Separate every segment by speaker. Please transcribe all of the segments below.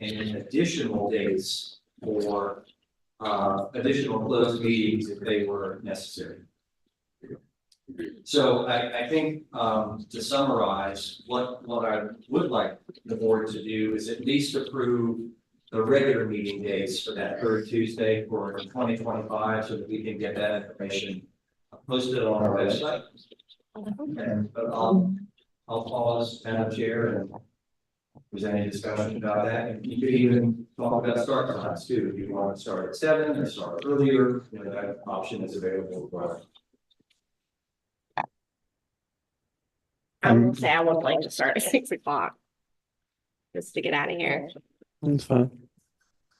Speaker 1: and additional dates for uh additional closed meetings if they were necessary. So I I think um to summarize, what what I would like the board to do is at least approve the regular meeting dates for that third Tuesday for twenty twenty five, so that we can get that information posted on our website. And but I'll I'll pause, Madam Chair, and was any discussion about that, and you could even talk about start times too, if you want to start at seven or start earlier, you know, that option is available for.
Speaker 2: I will
Speaker 3: Um,
Speaker 2: say I would like to start at six o'clock. Just to get out of here.
Speaker 4: That's fine.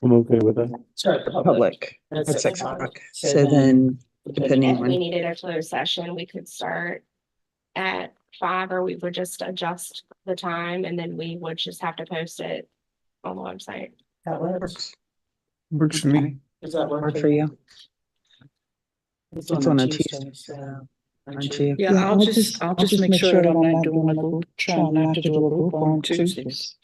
Speaker 4: I'm okay with that.
Speaker 5: Start the public.
Speaker 6: public
Speaker 5: at
Speaker 6: at six
Speaker 5: o'clock.
Speaker 6: o'clock.
Speaker 5: So
Speaker 6: So then, depending
Speaker 2: If we
Speaker 6: on,
Speaker 2: needed a closed session, we could start at five or we would just adjust the time and then we would just have to post it on the website.
Speaker 5: That works.
Speaker 4: Works for me.
Speaker 5: Does that
Speaker 6: work for you, It's on a Tuesday,
Speaker 5: so.
Speaker 6: aren't you?
Speaker 3: Yeah, I'll just, I'll just make sure that I'm not doing a group, trying not to do a group on Tuesdays.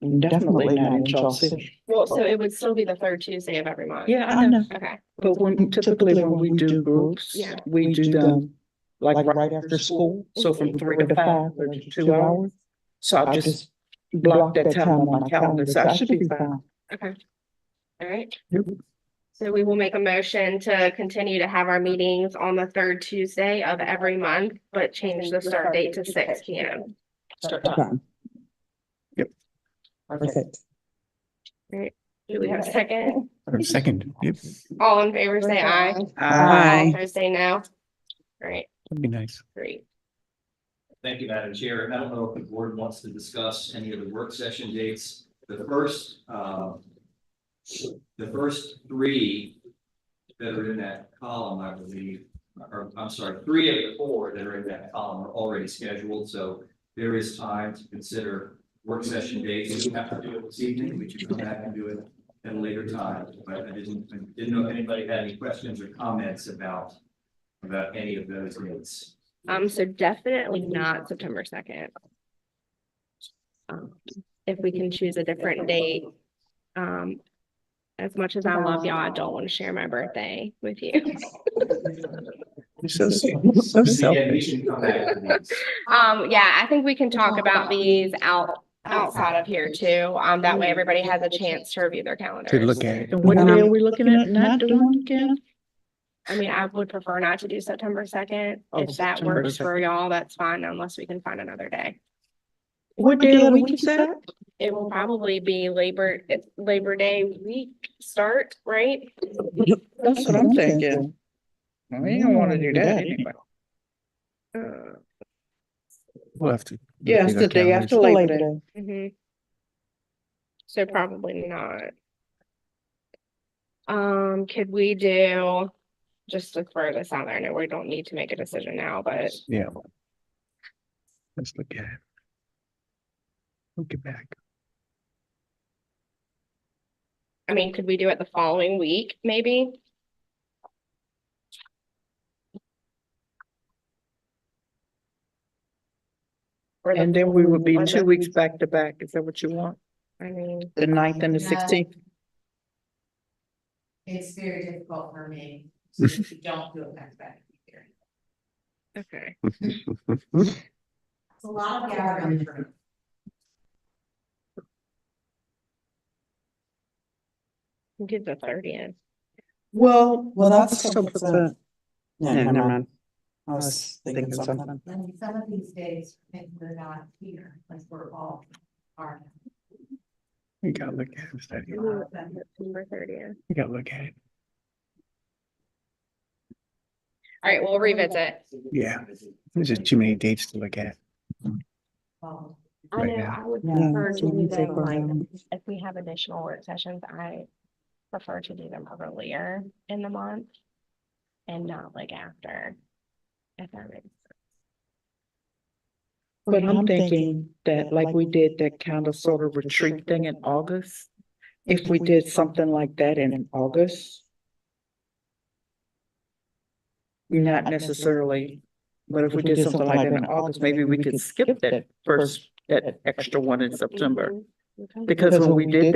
Speaker 3: And Definitely not in Charles City.
Speaker 2: Well, so it would still be the third Tuesday of every month.
Speaker 3: Yeah, I know,
Speaker 2: Okay,
Speaker 3: but when, typically when we do groups,
Speaker 2: Yeah.
Speaker 3: we do them like right after school, so from three to five or two hours. So I'll just block that time on my calendar, so I should be fine.
Speaker 2: okay. All right. So we will make a motion to continue to have our meetings on the third Tuesday of every month, but change the start date to six P M.
Speaker 5: Start time.
Speaker 6: Okay,
Speaker 5: Okay.
Speaker 6: perfect.
Speaker 2: Do we have a second?
Speaker 4: Second, yep,
Speaker 2: All in favor, say aye.
Speaker 3: Uh,
Speaker 6: Aye.
Speaker 2: All opposed, say no. Great,
Speaker 4: that'd be nice.
Speaker 2: great.
Speaker 1: Thank you, Madam Chair, and I don't know if the board wants to discuss any of the work session dates, the first, um. The first three that are in that column, I believe, or I'm sorry, three of the four that are in that column are already scheduled, so. There is time to consider work session dates, if you have to do it this evening, we can come back and do it at a later time, but I didn't, I didn't know if anybody had any questions or comments about. About any of those dates.
Speaker 2: Um, so definitely not September second. Um, if we can choose a different date, um. As much as I love y'all, I don't want to share my birthday with you.
Speaker 4: You're So so
Speaker 1: Yeah, we
Speaker 4: selfish.
Speaker 1: should come back to these.
Speaker 2: Um, yeah, I think we can talk about these out, outside of here too. Um, that way everybody has a chance to review their
Speaker 4: To
Speaker 2: calendars.
Speaker 4: look at it.
Speaker 3: And what day are we looking at not doing again?
Speaker 2: I mean, I would prefer not to do September second.
Speaker 3: Oh,
Speaker 2: If that
Speaker 3: September
Speaker 2: works for y'all, that's fine, unless we can find another day.
Speaker 3: What day of the week is that?
Speaker 2: It will probably be Labor, it's Labor Day week start, right?
Speaker 3: That's what I'm thinking. We don't wanna do that anyway.
Speaker 2: Uh,
Speaker 4: We'll have to.
Speaker 3: Yeah, it's the day after Labor Day.
Speaker 2: mhm. So probably not. Um, could we do, just to throw this out there, I know we don't need to make a decision now, but
Speaker 4: Yeah. Let's look at it. Look it back.
Speaker 2: I mean, could we do it the following week, maybe? Or the-
Speaker 3: And then we would be
Speaker 2: Or
Speaker 3: two
Speaker 2: the-
Speaker 3: weeks back to back. Is that what you want?
Speaker 2: I mean.
Speaker 3: The ninth and the
Speaker 7: Yeah.
Speaker 3: sixteenth?
Speaker 7: It's very difficult for me, so if you don't do it back to back. here.
Speaker 2: Okay.
Speaker 7: It's a lot of gathering for
Speaker 2: we Did the thirtieth.
Speaker 3: Well.
Speaker 5: Well, that's.
Speaker 6: So put the-
Speaker 5: Yeah,
Speaker 6: Yeah, never mind.
Speaker 5: I was thinking something.
Speaker 7: I mean, some of these days, I think we're not here, like we're all are.
Speaker 4: We gotta look at it. study it.
Speaker 2: September thirtieth.
Speaker 4: We gotta look at it.
Speaker 2: All right, we'll revisit.
Speaker 4: Yeah. There's just too many dates to look at.
Speaker 7: Well,
Speaker 2: I
Speaker 4: Right
Speaker 2: know,
Speaker 4: now.
Speaker 2: I would
Speaker 6: Yeah,
Speaker 2: prefer to
Speaker 6: so we
Speaker 2: do
Speaker 6: take
Speaker 2: them
Speaker 6: our
Speaker 2: like,
Speaker 6: own.
Speaker 2: if we have additional work sessions, I prefer to do them earlier in the month. And not like after. If that makes
Speaker 3: But I'm thinking that like we did that kind of sort of retreat thing in August. If we did something like that in August. Not necessarily, but if we did something like that in August, maybe we could skip that first, that extra one in September.
Speaker 2: Mhm. Okay.
Speaker 3: Because when we did